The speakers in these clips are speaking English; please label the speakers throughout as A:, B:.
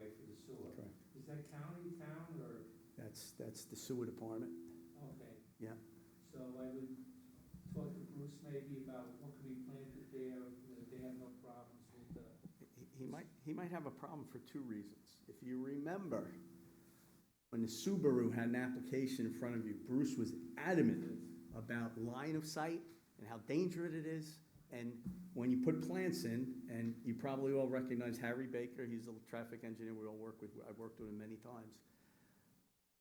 A: sewer.
B: Correct.
A: Is that county, town, or,
B: That's, that's the sewer department.
A: okay.
B: Yeah.
A: So I would talk to Bruce maybe about what could be planted there, that they have no problems with the,
B: He- He might, he might have a problem for two reasons. If you remember, when the Subaru had an application in front of you, Bruce was adamant about line of sight and how dangerous it is. And when you put plants in, and you probably all recognize Harry Baker, he's a traffic engineer we all work with, I've worked with him many times.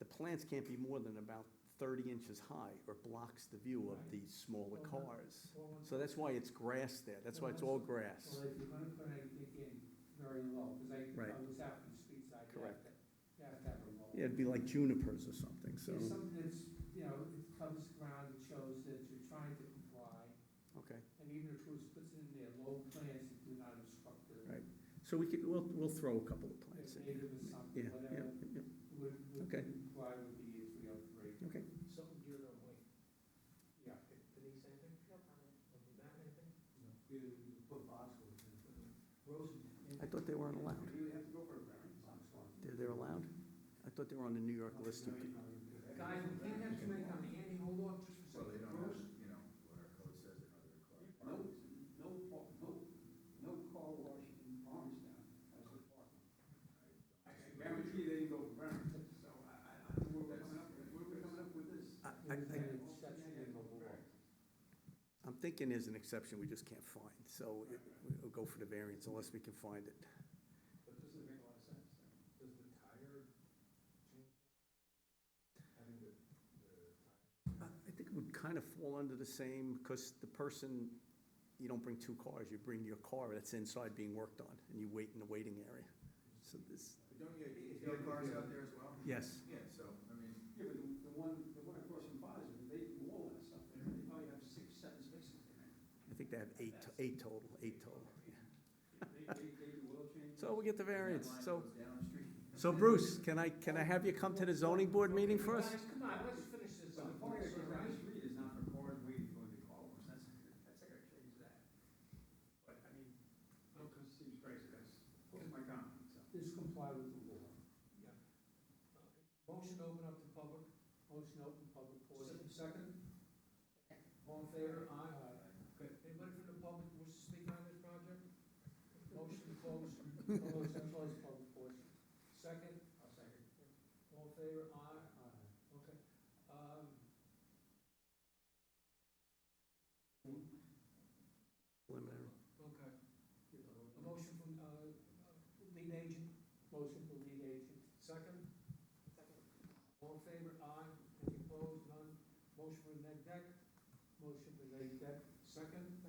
B: The plants can't be more than about thirty inches high or blocks the view of the smaller cars.
A: Well,
B: So that's why it's grass there, that's why it's all grass.
A: Well, if you're gonna put anything in very low, cause I, I
B: Right.
A: was out in the street side, you have
B: Correct.
A: to, you have to have a low.
B: Yeah, it'd be like junipers or something, so,
A: There's something that's, you know, it covers ground, it shows that you're trying to comply,
B: okay.
A: and even if Bruce puts in there low plants that do not obstruct the
B: Right. So we could, we'll, we'll throw a couple of
A: the
B: plants in.
A: native or something,
B: Yeah, yeah,
A: whatever,
B: yeah,
A: would, would
B: Okay.
A: comply with the year three upgrade.
B: okay.
C: Something geared on weight.
A: Yeah.
C: Denise, anything? No comment. Okay, Matt, anything?
A: put boxwood
B: I thought they weren't allowed.
A: you have to go for a variance on
B: They're, they're allowed? I thought they were on the New York list of,
C: Guys, we can't have too many on the Andy, hold on just for
D: Well,
C: a
D: they don't
C: second.
D: have,
C: Bruce,
D: you know, what our code says in other required
A: No,
D: parties.
A: no, par- no, no car wash in Palmstown, that's a parking. I I guarantee they go burn, so I, I, I don't know where we're coming up, with- where we're coming up with this.
B: I, I, I- I'm thinking there's an exception we just can't find, so it- we'll go for the variance unless we can find it.
C: But this doesn't make a lot of sense. Does the tire change? Having the, the tire.
B: I I think it would kind of fall under the same, because the person, you don't bring two cars, you bring your car that's inside being worked on, and you wait in the waiting area. So this,
D: But don't you, you have cars out there as well?
B: yes,
D: Yeah, so, I mean,
A: Yeah, but the, the one, the one across from Boston, they do all that stuff there, they probably have six, seven spaces there.
B: I think they have eight, to- eight total, eight total. yeah.
A: They, they, they do oil changes.
B: So we get the variance,
D: that line
B: so,
D: goes down the street.
B: so Bruce, can I, can I have you come to the zoning board meeting for us?
C: Guys, come on, let's finish this
A: So the
C: up.
A: parking
C: It's all
A: lot,
C: right.
A: this read is not for cars waiting for the car wash, that's, that's, I gotta change that. But, I mean, no, cause it seems crazy, that's, that's my comment, so. This comply with the law.
C: Okay. Motion to open up to public.
A: Motion open public portion.
C: Second? All in favor? Aye. Okay, anybody from the public wish to speak on this project? Motion to close.
A: Motion close public portion.
C: Second? I'll second. All in favor? Aye. Okay, um.
B: Preliminary.
C: Okay, a motion from, uh, uh, lead agent,
A: Motion for lead agent.
C: second? All in favor? Aye. Any opposed? None. Motion from neg deck,
A: Motion for lead deck.
C: second?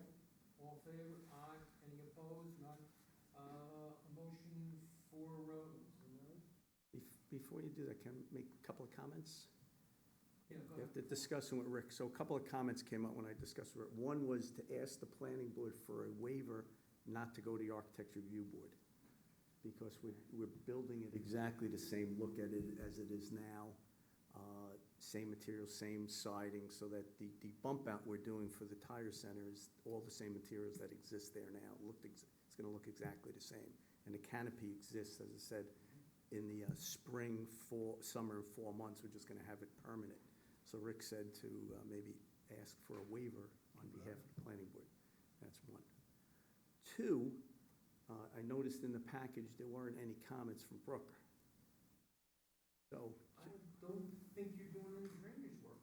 C: All in favor? Aye. Any opposed? None. Uh, a motion for, uh,
B: Bef- Before you do that, can I make a couple of comments?
C: yeah, go
B: You
C: ahead.
B: have to discuss them with Rick, so a couple of comments came up when I discussed with Rick. One was to ask the planning board for a waiver not to go to the architecture review board. Because we're, we're building it exactly the same look at it as it is now. uh, Same material, same siding, so that the, the bump out we're doing for the tire center is all the same materials that exist there now. It Looked, ex- it's gonna look exactly the same. And the canopy exists, as I said, in the uh, spring, fall, summer, and fall months, we're just gonna have it permanent. So Rick said to uh, maybe ask for a waiver on behalf of the planning board. That's one. Two, uh, I noticed in the package, there weren't any comments from Brooker. So
C: I don't think you're doing any drainage work.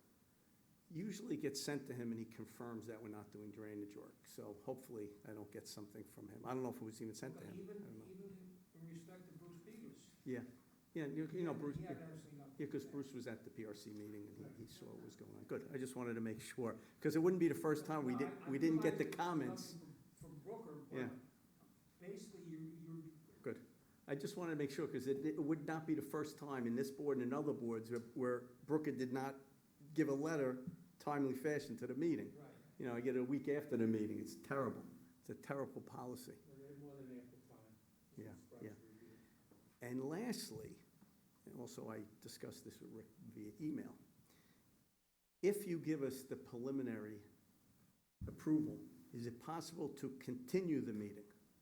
B: usually it gets sent to him and he confirms that we're not doing drainage work. So hopefully I don't get something from him. I don't know if it was even sent to him.
C: Even,
B: I don't know.
C: even in respect to Bruce Peters.
B: Yeah, yeah, you you know, Bruce.
C: He had absolutely nothing.
B: Yeah, because Bruce was at the PRC meeting and he- he saw what was going on. Good, I just wanted to make sure, because it wouldn't be the first time we
C: No,
B: didn't,
C: I- I
B: we didn't get
C: realize
B: the
C: that there's
B: comments.
C: nothing From from Brooker,
B: Yeah.
C: but basically you, you,
B: I just wanted to make sure, because it, it would not be the first time in this board and in other boards where- where Brooker did not give a letter timely fashion to the meeting.
C: right.
B: You know, I get it a week after the meeting, it's terrible. It's a terrible policy.
A: Well, they're more than ample time.
B: Yeah, yeah. And lastly, and also I discussed this with Rick via email, if you give us the preliminary approval, is it possible to continue the meeting?